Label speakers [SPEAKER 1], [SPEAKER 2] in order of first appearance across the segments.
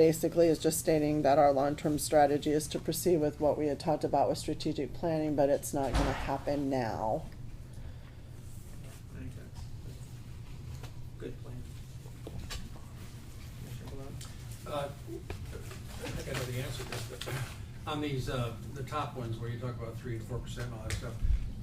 [SPEAKER 1] basically is just stating that our long-term strategy is to proceed with what we had talked about with strategic planning, but it's not gonna happen now.
[SPEAKER 2] I think that's a good plan. Commissioner Blount?
[SPEAKER 3] Uh, I think I know the answer to this, but on these, uh, the top ones where you talk about three and four percent and all that stuff,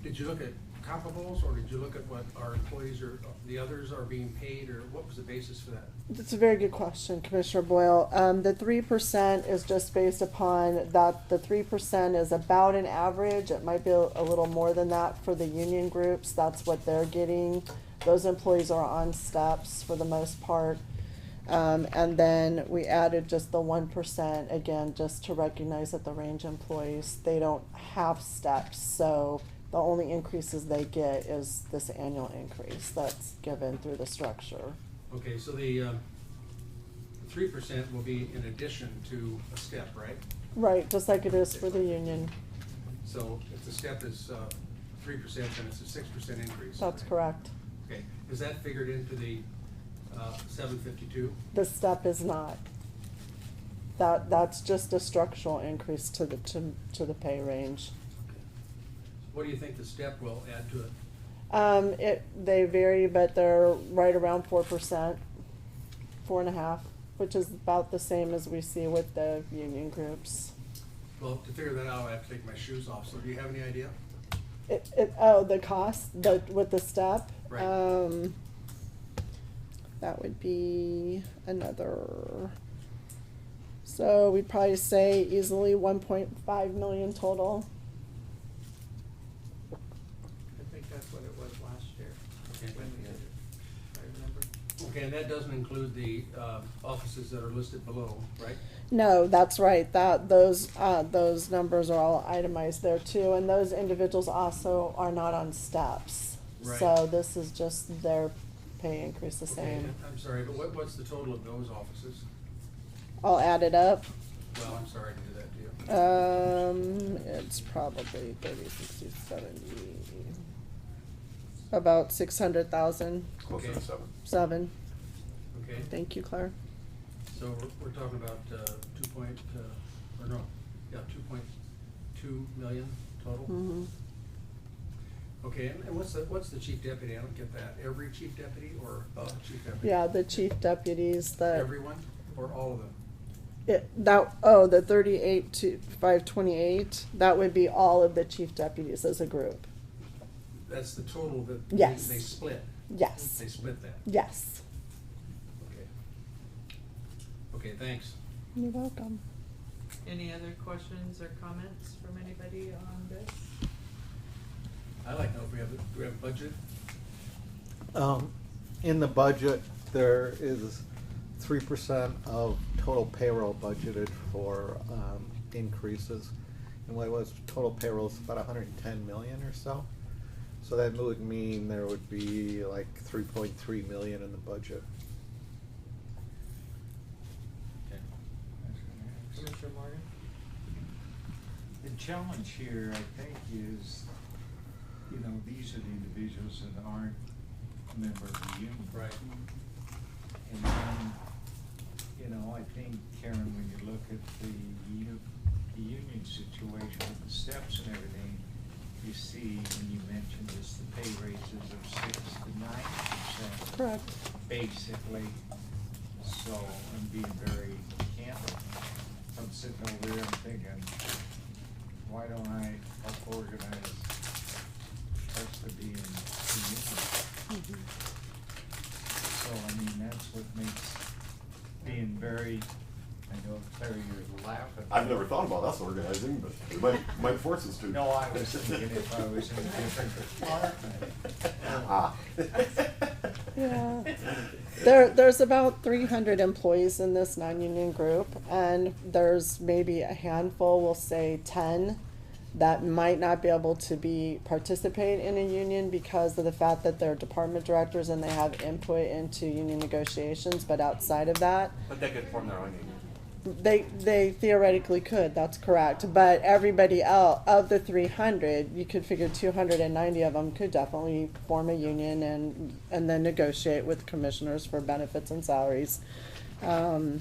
[SPEAKER 3] did you look at comparables or did you look at what our employees or the others are being paid or what was the basis for that?
[SPEAKER 1] That's a very good question, Commissioner Boyle. Um, the three percent is just based upon that, the three percent is about an average. It might be a a little more than that for the union groups. That's what they're getting. Those employees are on steps for the most part. Um, and then we added just the one percent, again, just to recognize that the range employees, they don't have steps. So the only increases they get is this annual increase that's given through the structure.
[SPEAKER 3] Okay, so the um, three percent will be in addition to a step, right?
[SPEAKER 1] Right, just like it is for the union.
[SPEAKER 3] So if the step is uh, three percent, then it's a six percent increase.
[SPEAKER 1] That's
[SPEAKER 3] right?
[SPEAKER 1] correct.
[SPEAKER 3] Okay, is that figured into the uh, seven fifty-two?
[SPEAKER 1] The step is not. That, that's just a structural increase to the, to, to the pay range.
[SPEAKER 3] What do you think the step will add to it?
[SPEAKER 1] Um, it, they vary, but they're right around four percent, four and a half, which is about the same as we see with the union groups.
[SPEAKER 3] Well, to figure that out, I have to take my shoes off, so do you have any idea?
[SPEAKER 1] It, it, oh, the cost, the, with the step?
[SPEAKER 3] Right.
[SPEAKER 1] Um, that would be another, so we'd probably say easily one point five million total.
[SPEAKER 2] I think that's what it was last year,
[SPEAKER 3] Okay.
[SPEAKER 2] when we did it, if I remember.
[SPEAKER 3] Okay, and that doesn't include the uh, offices that are listed below, right?
[SPEAKER 1] No, that's right, that, those, uh, those numbers are all itemized there too, and those individuals also are not on steps.
[SPEAKER 3] Right.
[SPEAKER 1] So this is just their pay increase the
[SPEAKER 3] Okay,
[SPEAKER 1] same,
[SPEAKER 3] I'm sorry, but what, what's the total of those offices?
[SPEAKER 1] all added up.
[SPEAKER 3] Well, I'm sorry to do that to
[SPEAKER 1] Um,
[SPEAKER 3] you.
[SPEAKER 1] it's probably thirty, sixty, seventy. About six hundred thousand,
[SPEAKER 4] Closer
[SPEAKER 3] Okay.
[SPEAKER 4] to seven.
[SPEAKER 1] seven.
[SPEAKER 3] Okay,
[SPEAKER 1] Thank you, Claire.
[SPEAKER 3] so we're, we're talking about uh, two point, uh, or no, yeah, two point two million total?
[SPEAKER 1] Mhm.
[SPEAKER 3] Okay, and and what's the, what's the chief deputy? I don't get that. Every chief deputy or above chief deputy?
[SPEAKER 1] Yeah, the chief deputies, the,
[SPEAKER 3] Everyone or all of them?
[SPEAKER 1] it, that, oh, the thirty-eight to five twenty-eight, that would be all of the chief deputies as a group.
[SPEAKER 3] That's the total that they-
[SPEAKER 1] Yes.
[SPEAKER 3] they split?
[SPEAKER 1] Yes,
[SPEAKER 3] They split that?
[SPEAKER 1] yes.
[SPEAKER 3] Okay. Okay, thanks.
[SPEAKER 1] You're welcome.
[SPEAKER 2] Any other questions or comments from anybody on this?
[SPEAKER 3] I'd like to know if we have, a- do we have a budget?
[SPEAKER 5] Um, in the budget, there is three percent of total payroll budgeted for, um, increases. And what it was, total payroll is about hundred and ten million or so. So that would mean there would be like three point three million in the budget.
[SPEAKER 2] Commissioner Morgan?
[SPEAKER 6] The challenge here, I think, is, you know, these are the individuals that aren't a member of the union.
[SPEAKER 3] Right.
[SPEAKER 6] And then, you know, I think, Karen, when you look at the u- the union situation with the steps and everything, you see, when you mentioned this, the pay raises of six to nine percent.
[SPEAKER 1] Correct.
[SPEAKER 6] Basically, so I'm being very candid. I'm sitting over there, I'm thinking, why don't I help organize us to be in the union?
[SPEAKER 1] Mhm.
[SPEAKER 6] So, I mean, that's what makes being very, I know, Claire, you're laughing.
[SPEAKER 4] I've never thought about us organizing, but it might, might force us to.
[SPEAKER 6] No, I was thinking if I was in a different department.
[SPEAKER 4] Ah.
[SPEAKER 1] Yeah. There, there's about three hundred employees in this non-union group, and there's maybe a handful, we'll say ten, that might not be able to be, participate in a union because of the fact that they're department directors and they have input into union negotiations, but outside of that,
[SPEAKER 7] But they could form their own union.
[SPEAKER 1] they, they theoretically could, that's correct, but everybody else, of the three hundred, you could figure two hundred and ninety of them could definitely form a union and, and then negotiate with commissioners for benefits and salaries. Um,